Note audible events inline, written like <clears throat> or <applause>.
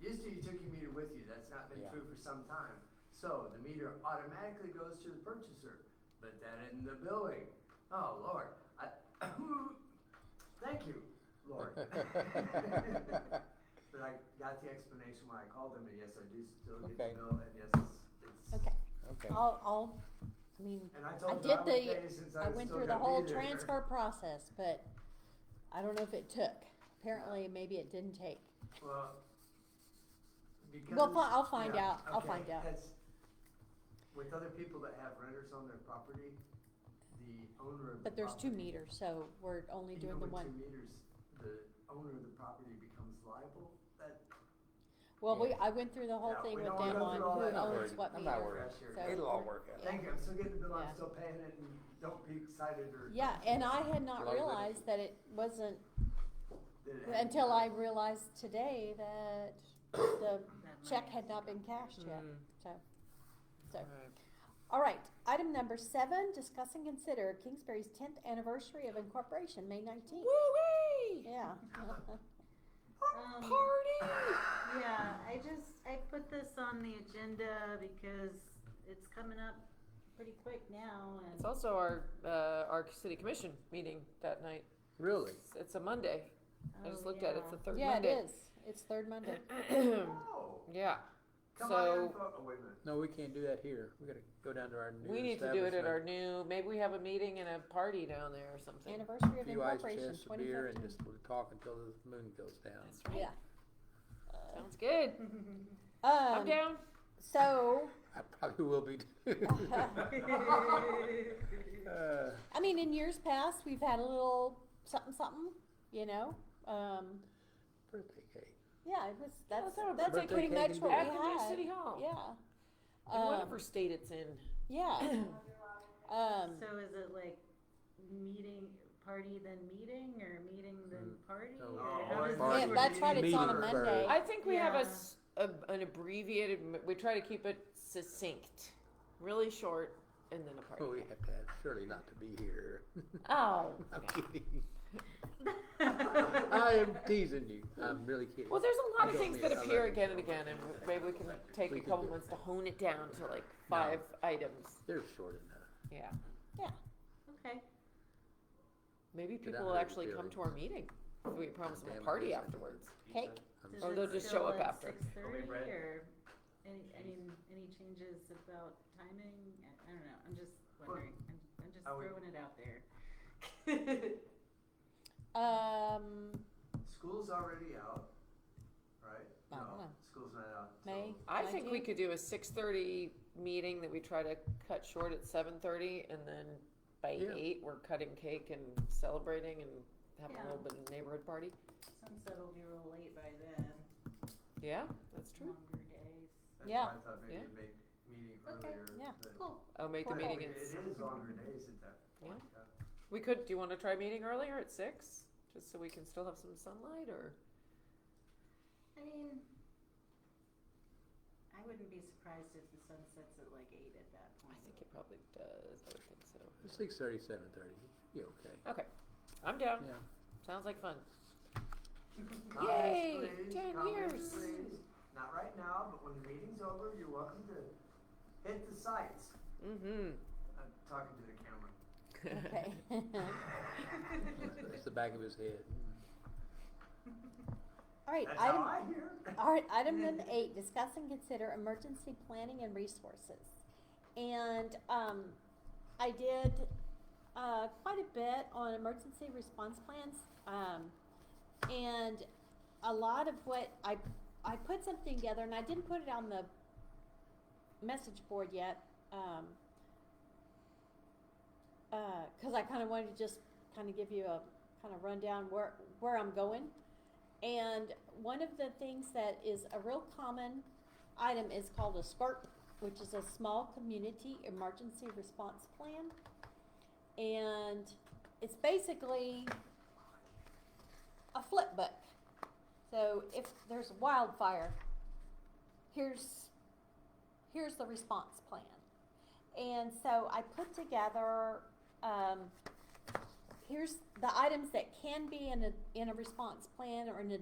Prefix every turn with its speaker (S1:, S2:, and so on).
S1: Used to, you took your meter with you, that's not been
S2: Yeah.
S1: true for some time. So the meter automatically goes to the purchaser, but that in the billing, oh lord, I, <coughs> thank you,
S2: <laughs>
S1: Lord. But I got the explanation why I called them, and yes, I do still get
S2: Okay.
S1: the bill, and yes, it's, it's.
S3: Okay,
S2: Okay.
S3: I'll, I'll, I mean,
S1: And I
S3: I
S1: told
S3: did
S1: her I would
S3: the,
S1: pay since
S3: I
S1: was
S3: went
S1: still
S3: through the
S1: gonna
S3: whole
S1: be there. <laughs>
S3: <laughs> transfer process, but I don't know if it took. Apparently, maybe it didn't take.
S1: Well, because.
S3: Well, fi- I'll find
S1: yeah,
S3: out. I'll
S1: okay,
S3: find out.
S1: that's- With other people that have renters on their property, the owner of the property.
S3: But there's two meters, so we're only doing the one.
S1: Even with two meters, the owner of the property becomes liable, that,
S3: Well, we, I went through the whole
S1: Yeah,
S3: thing
S1: we
S3: with
S1: don't wanna
S3: them
S1: go
S3: on
S1: through all that.
S3: who
S2: Not
S3: owns
S2: worried.
S3: what
S2: I'm not
S3: meter.
S2: worried.
S1: Sure.
S3: So
S2: It'll all
S3: we're-
S2: work out.
S3: yeah.
S1: thank you, I'm still getting the bill, I'm
S3: Yeah.
S1: still paying it, and don't be excited or.
S3: Yeah, and I had
S2: Lot
S3: not
S2: of
S3: realized that it wasn't,
S1: that it had to
S3: until
S1: be- <gasps>
S3: I realized today that the check had not been cashed yet,
S2: Hmm.
S3: so. So, all right, item number seven, discuss and consider Kingsbury's tenth anniversary of incorporation, May nineteenth.
S4: Woo-wee!
S3: Yeah. <laughs>
S5: Um,
S4: Party!
S5: Yeah, I just, I put this on the agenda because it's coming up pretty quick now
S4: It's
S5: and
S4: also our, uh, our city commission meeting that night.
S2: Really?
S4: It's- It's a Monday. I just
S5: Oh,
S4: looked at it.
S5: yeah.
S4: It's the third
S3: Yeah, it
S4: Monday.
S3: is. It's third Monday.
S4: Hmm.
S1: Oh,
S4: <clears throat> Yeah.
S1: come on, in,
S4: So-
S1: fo- oh, wait a minute,
S2: No, we can't do that here. We gotta go down to our new
S4: We need to do it at our
S2: establishment.
S4: new, maybe we have a meeting and a party down there or something.
S3: Anniversary of
S2: Few ice
S3: incorporation,
S2: chests, a
S3: twenty
S2: beer, and
S3: fifteen.
S2: just we'll talk until the moon goes down.
S4: That's right.
S2: <laughs>
S3: Yeah.
S4: Sounds good. I'm
S3: Um,
S4: down.
S3: so, <laughs>
S2: I probably will be. too. <laughs>
S5: oh,
S2: Uh,
S3: I mean, in years past, we've had a little something, something, you know, um,
S2: birthday cake.
S3: yeah, it was, that's,
S4: let's have a
S3: that's
S2: birthday
S3: pretty
S2: cake
S3: much
S2: and
S3: what we
S2: beer.
S4: At
S3: had.
S4: the new city hall.
S3: Yeah.
S4: Oh. In
S3: Um,
S4: whatever state it's in. <clears throat>
S3: yeah. Um,
S5: <laughs> so is it like meeting, party then meeting or meeting then party?
S2: No.
S5: or
S1: Oh,
S5: how
S1: party.
S5: does
S3: yeah,
S5: this
S1: would
S5: work?
S3: that's right, it's on a
S2: Meter
S3: Monday.
S2: bird.
S4: I think we have a
S5: Yeah.
S4: s- a- an abbreviated, m- we try to keep it succinct, really short, and then a party.
S2: Well, we have to have Shirley not to be here. <laughs>
S4: Oh.
S2: I'm kidding.
S4: <laughs>
S2: I am teasing you. I'm really kidding.
S4: Well, there's a
S2: I
S4: lot of
S2: don't
S4: things
S2: mean
S4: that
S2: it. I
S4: appear
S2: love
S4: again and again, and maybe we can take
S2: We
S4: a
S2: can
S4: couple
S2: do it.
S4: months to hone it down to like five items.
S2: They're short enough.
S4: Yeah.
S1: <laughs>
S5: Okay,
S4: Maybe
S2: Get out
S4: people
S2: of
S4: will
S2: here,
S4: actually come
S2: Billy.
S4: to our meeting. We promise them
S2: Damn,
S4: a
S2: I
S4: party
S2: wish I
S4: afterwards.
S3: Cake.
S2: I'm
S5: does
S4: Or
S5: it
S4: Oh, they'll just
S5: still
S4: show up
S5: at
S4: after.
S5: Six thirty
S1: Brad.
S5: or any, any, any changes about timing? I, I don't know, I'm just wondering, I'm, I'm just
S1: I would-
S5: throwing it out there.
S3: Um,
S1: school's already out, right?
S3: I don't know.
S1: School's not out. till-
S3: May.
S4: I think we
S3: 19th?
S4: could do a six thirty meeting that we try to cut short at seven thirty, and then by
S2: Yeah.
S4: eight, we're cutting cake and celebrating and having a
S5: Yeah.
S4: little bit of neighborhood party.
S5: Sunset will be real late by then,
S4: Yeah, that's true.
S5: longer days.
S1: That's
S3: Yeah.
S1: why I thought maybe
S4: Yeah.
S1: a big meeting
S5: Okay,
S1: earlier.
S3: yeah.
S1: but-
S5: Cool.
S4: I'll Oh, make the
S3: Cool.
S1: Well,
S4: meeting
S1: It it
S4: at,
S1: is longer days at that point. yeah.
S4: we could, do you wanna try meeting earlier at six? Just so we can still have some sunlight or,
S5: I mean, I wouldn't be surprised if the sun sets at like eight at that
S4: I
S5: point.
S4: think it probably does, I would think so.
S2: Six thirty, seven thirty. You okay?
S4: I'm down,
S2: Yeah.
S4: sounds like fun.
S1: Comments,
S4: Yay,
S1: please,
S4: 10
S1: comments,
S4: years.
S1: please. Not right now, but when the meeting's over, you're welcome to hit the sites.
S4: Mm-hmm.
S1: I'm talking to the camera.
S4: <laughs>
S3: okay.
S1: <laughs>
S3: <laughs>
S2: That's the back of his head. Mm.
S3: All right,
S1: That's
S3: item,
S1: how I hear.
S3: all right, item number eight, discuss and consider emergency planning and resources. And, um, I did, uh, quite a bit on emergency response plans, um, and a lot of what I, I put something together and I didn't put it on the message board yet, um, uh, cause I kinda wanted to just kinda give you a kinda rundown where, where I'm going. And one of the things that is a real common item is called a SCRP, which is a Small Community Emergency Response Plan. And it's basically a flip book. So if there's wildfire, here's, here's the response plan. And so I put together, um, here's the items that can be in a, in a response plan or in a